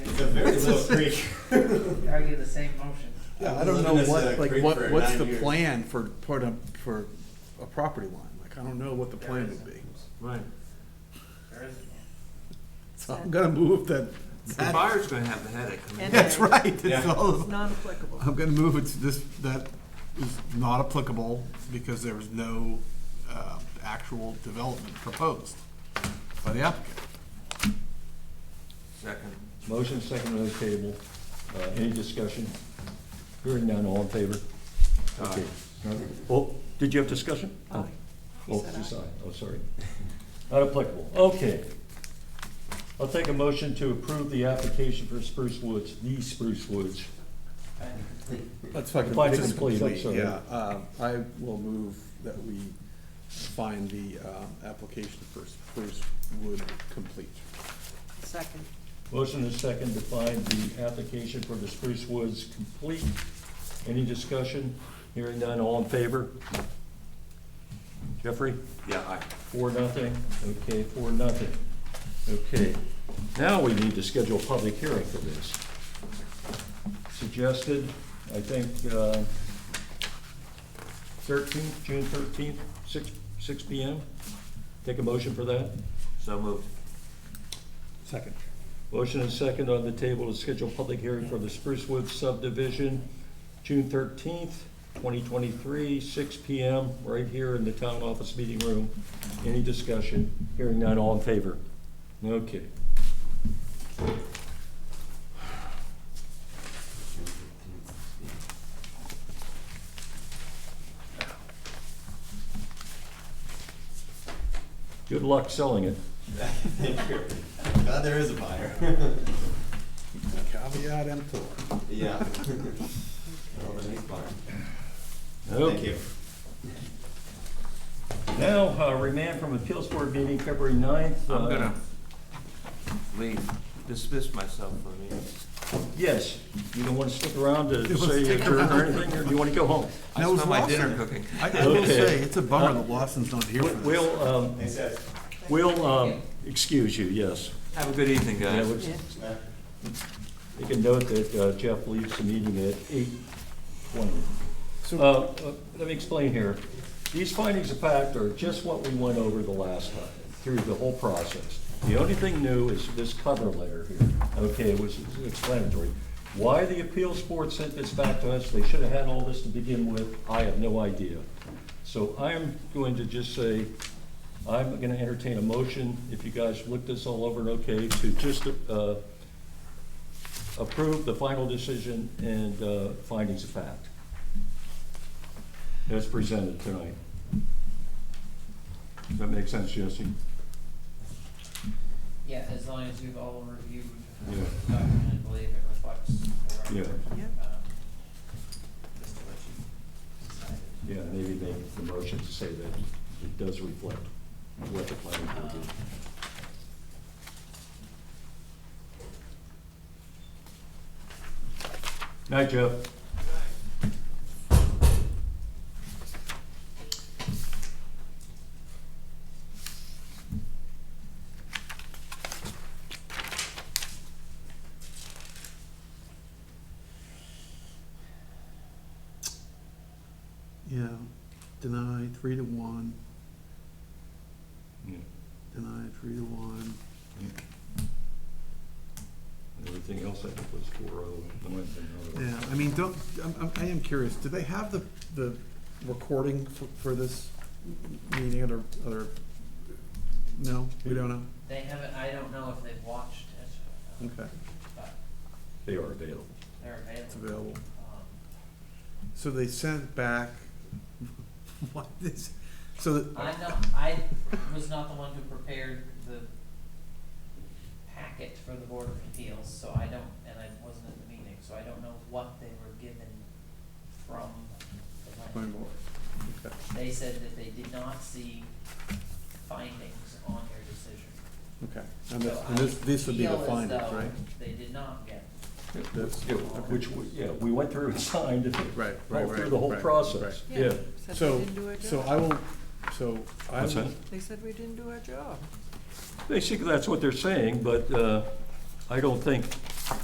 a very little creek. Argue the same motion. Yeah, I I've don't lived know in this, uh, what, like, creek what, for what's nine the years. plan for, put a, for a property line? Like, I don't know what the plan would be. Right. There isn't one. So I'm gonna move that, The buyer's gonna have the headache. I mean, And- that's right, it's Yeah. all, It's non-applicable. I'm gonna move it to this, that is not applicable because there was no, uh, actual development proposed by the applicant. Second. Motion second on the table. Uh, Any discussion? Hearing none, all in favor? Okay. Oh, did you have discussion? Oh. Aye. He Oh, said just aye. aye. Oh, sorry. Not applicable. Okay. I'll take a motion to approve the application for Spruce Woods, the Spruce Woods. Finding complete. Let's fucking, Find this is complete, I'm complete, sorry. yeah. Um, I will move that we find the um, application for Spruce Wood complete. Second. Motion is second to find the application for the Spruce Woods complete. Any discussion? Hearing none, all in favor? Jeffrey? Yeah, aye. Four, nothing. Okay, four, nothing. Okay, now we need to schedule a public hearing for this. Suggested, I think, uh, thirteenth, June thirteenth, six, six P M. Take a motion for that? So moved. Second. Motion and second on the table to schedule a public hearing for the Spruce Woods subdivision, June thirteenth, twenty twenty-three, six P M, right here in the town office meeting room. Any discussion? Hearing none, all in favor? Okay. Good luck selling it. Glad there is a buyer. Caveat emptor. Yeah. Oh, the next buyer. Thank Okay. you. Now, uh, remand from appeals board meeting February 9th. I'm uh, gonna leave, dismiss myself for a minute. Yes, you don't want to stick around to was say stick adjourn or anything, or do you want to go home? I That was smell my Lawson. dinner cooking. I I will Okay. say, it's a bummer that Lawson's not here for this. We'll, um, Thanks, guys. we'll um, excuse you, yes. Have a good evening, Yeah, guys. we'll- Yeah. Matt. You can note that uh, Jeff leaves the meeting at 8:20. So- Uh, uh, Let me explain here. These findings of fact are just what we went over the last time, through the whole process. The only thing new is this cover letter here, okay, which is explanatory. Why the appeals board sent this back to us, they should have had all this to begin with, I have no idea. So I'm going to just say, I'm gonna entertain a motion, if you guys looked this all over and okay, to just uh, approve the final decision and uh, findings of fact as presented tonight. Does that make sense, Jesse? Yeah, as long as we've all reviewed the Yeah. document and believe it reflects. correct, Yeah. Yeah. um, Just to let you decide. Yeah, maybe make the motion to say that it does reflect what the planning board Um, did. Night, Jeff. Yeah, deny three to one, deny three to one. Everything else I think was four oh. Yeah, I mean, don't, I'm, I'm- I am curious, do they have the, the recording for, for this meeting or, or, no, we don't know? They haven't, I don't know if they've watched it, um, Okay, but They are available. they're it's available. available. Um, So they sent back, what is, so that, I'm not, I was not the one who prepared the packet for the Board of Appeals, so I don't, and I wasn't at the meeting, so I don't know what they were given from the Fine, land well, board. okay. They said that they did not see findings on your decision. okay, and this, So and this, I this would be the feel as findings, though right? They did not get. That's- Yeah, Which, we- yeah, we went through and signed it. Right, right, Through right, the whole right, process, Yeah. yeah. Said we So, didn't do our job. so I will, so I What's will, that? They said we didn't do our job. Basically, that's what they're saying, but uh, I don't think